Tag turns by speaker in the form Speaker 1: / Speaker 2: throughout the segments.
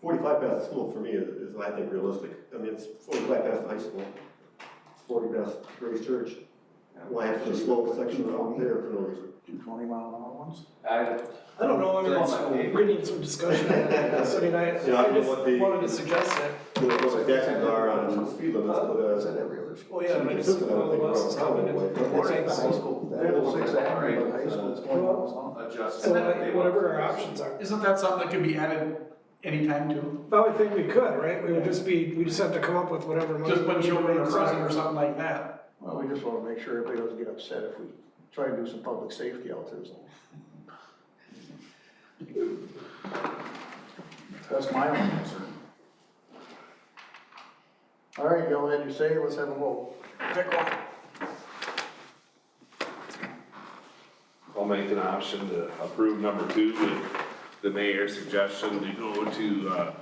Speaker 1: Forty-five past the school for me is, is I think realistic. I mean, it's forty-five past the high school, forty past Grace Church. Why have to slow section out there for no reason?
Speaker 2: Two twenty mile an hour ones?
Speaker 3: I,
Speaker 4: I don't know, I mean,
Speaker 3: They're all
Speaker 4: it's-
Speaker 3: my-
Speaker 4: we need some discussion, on this. I mean, I,
Speaker 1: Yeah, I
Speaker 4: I
Speaker 1: mean, what the-
Speaker 4: just wanted to suggest that,
Speaker 1: You know, what the taxis are on speed limits, but,
Speaker 2: Is
Speaker 1: uh,
Speaker 2: that every other school?
Speaker 4: oh yeah, I mean, it's,
Speaker 1: Consistent, I don't
Speaker 4: the
Speaker 1: think we're
Speaker 4: bus is
Speaker 1: on
Speaker 4: coming,
Speaker 1: the
Speaker 4: it's-
Speaker 1: way.
Speaker 4: it's-
Speaker 2: High school,
Speaker 1: They're the
Speaker 2: that
Speaker 1: ones
Speaker 2: six
Speaker 1: that-
Speaker 2: avenue,
Speaker 3: right.
Speaker 2: but high school is twenty miles an hour.
Speaker 3: adjust.
Speaker 4: So like, whatever our options are,
Speaker 5: Isn't that something that could be added anytime too?
Speaker 4: but I would think we could, right, we would just be, we just have to come up with whatever. money
Speaker 5: Just when
Speaker 4: we
Speaker 5: children are
Speaker 4: need.
Speaker 5: present or something like that?
Speaker 2: Well, we just wanna make sure everybody doesn't get upset if we try and do some public safety out there, so. That's my only concern. All right, y'all had your say, let's have a vote.
Speaker 4: Pick one.
Speaker 6: I'll make an option to approve number two with the mayor's suggestion to go to, uh,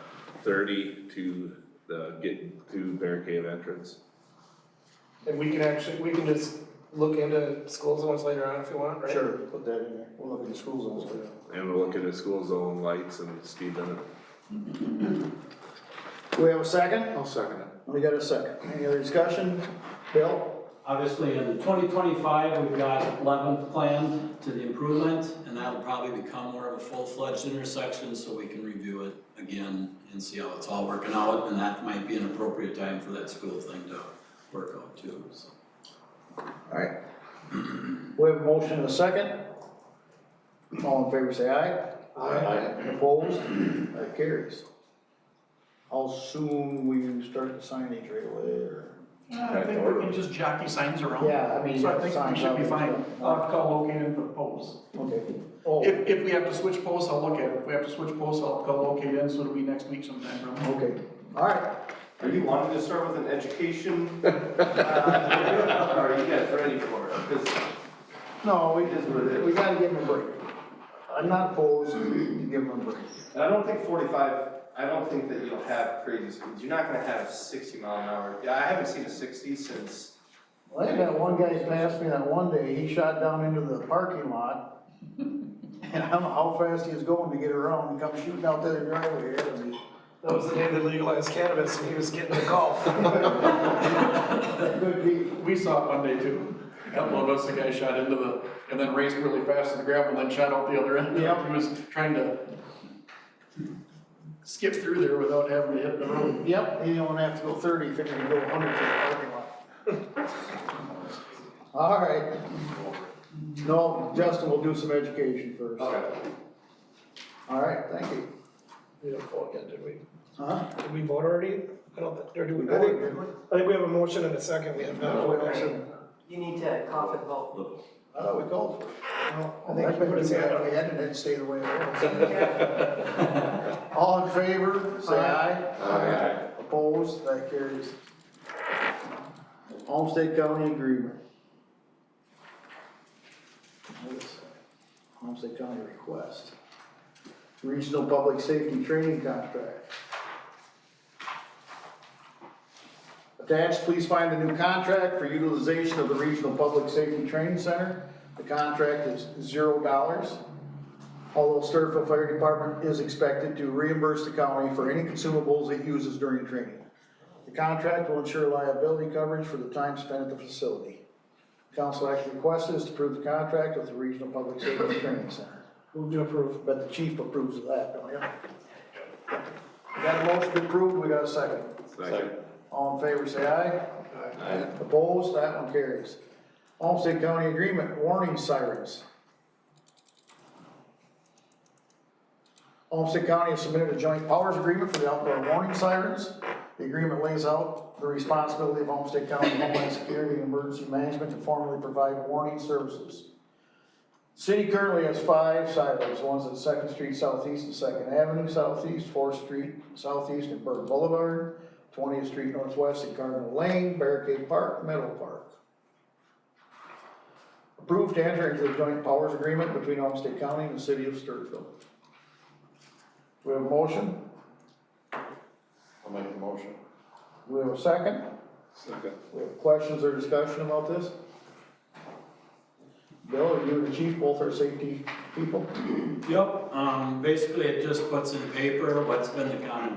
Speaker 6: thirty to the, get to Bear Cave entrance.
Speaker 4: And we can actually, we can just look into school zones later on if you want, right?
Speaker 2: Sure, put that in there, we'll look at the school zones later.
Speaker 6: And we'll look at the school zone lights and speed limit.
Speaker 2: Do we have a second?
Speaker 6: I'll second it.
Speaker 2: We got a second, any other discussion? Bill?
Speaker 7: Obviously, in 2025, we've got 11th planned to the improvement, and that'll probably become more of a full-fledged intersection, so we can review it again and see how it's all working out, and that might be an appropriate time for that school thing to work out too, so.
Speaker 2: All right. We have a motion and a second. All in favor, say aye. Aye. Opposed? That carries. How soon we start the signage right away, or?
Speaker 5: I think we can just jockey signs around.
Speaker 2: Yeah, I mean,
Speaker 5: So I think we
Speaker 2: signs
Speaker 5: should be
Speaker 2: up.
Speaker 5: fine. I'll have to call located for the posts.
Speaker 2: Okay. Oh,
Speaker 5: If, if we have to switch posts, I'll look at it. If we have to switch posts, I'll call locate in, so it'll be next week sometime, probably.
Speaker 2: okay, all right.
Speaker 3: Are you wanting to start with an education? uh, Or are you guys ready for it? Because
Speaker 2: No, we
Speaker 3: It is what it is.
Speaker 2: We gotta give them a break. I'm not opposed to give them a break.
Speaker 3: And I don't think forty-five, I don't think that you'll have crazy speeds, you're not gonna have sixty mile an hour, Yeah, I haven't seen a sixty since,
Speaker 2: Well, I got one guy passed me that one day, he shot down into the parking lot. And I don't know how fast he was going to get around, he come shooting out that driveway, and he-
Speaker 4: That was the day they legalized cannabis and he was getting the golf.
Speaker 2: Good deed.
Speaker 5: We saw it Monday too. A couple of us, the guy shot into the, and then raced really fast to the gravel, and then shot out the other end.
Speaker 2: Yep.
Speaker 5: He was trying to skip through there without having to hit the road.
Speaker 2: Yep, you don't have to go thirty, you figure you go hundred to the parking lot. All right. No, Justin will do some education first.
Speaker 3: okay.
Speaker 2: All right, thank you.
Speaker 4: We didn't vote yet, did we?
Speaker 2: Huh?
Speaker 4: Did we vote already? I don't, thi- or do we?
Speaker 2: I think-
Speaker 4: I think we have a motion and a second, we have not
Speaker 2: No,
Speaker 4: voted.
Speaker 2: we don't.
Speaker 8: You need to cough and vote.
Speaker 2: I thought we called for it.
Speaker 4: No,
Speaker 2: Well,
Speaker 4: I
Speaker 2: I've
Speaker 4: think we
Speaker 2: been
Speaker 4: put
Speaker 2: doing
Speaker 4: his hand
Speaker 2: that,
Speaker 4: up.
Speaker 2: we hadn't, it stayed the way it was. All in favor, say aye.
Speaker 3: Aye.
Speaker 2: Opposed, that carries. Homestead County Agreement. Notice, Homestead County Request. Regional Public Safety Training Contract. Attached, please find the new contract for utilization of the Regional Public Safety Training Center. The contract is zero dollars. Although Sturfield Fire Department is expected to reimburse the county for any consumables it uses during training. The contract will ensure liability coverage for the time spent at the facility. Council action requested is to approve the contract with the Regional Public Safety Training Center.
Speaker 4: Move to approve.
Speaker 2: But the chief approves of that, don't you? Got a motion approved, we got a second.
Speaker 6: Second.
Speaker 2: All in favor, say aye.
Speaker 6: Aye.
Speaker 2: Opposed, that one carries. Homestead County Agreement, warning sirens. Homestead County has submitted a joint powers agreement for the outdoor warning sirens. The agreement lays out the responsibility of Homestead County Homeland Security and Emergency Management to formally provide warning services. City currently has five sirens, one's at Second Street Southeast and Second Avenue Southeast, Fourth Street Southeast and Burke Boulevard. 20th Street Northwest and Cardinal Lane, Barricade Park, Meadow Park. Approved to enter into the joint powers agreement between Olmsted County and the city of Sturfield. We have a motion,
Speaker 1: I'll make the motion.
Speaker 2: we have a second,
Speaker 6: Second.
Speaker 2: we have questions or discussion about this? Bill, are you and the chief both are safety people?
Speaker 7: Yep, um, basically, it just puts in paper what's been the county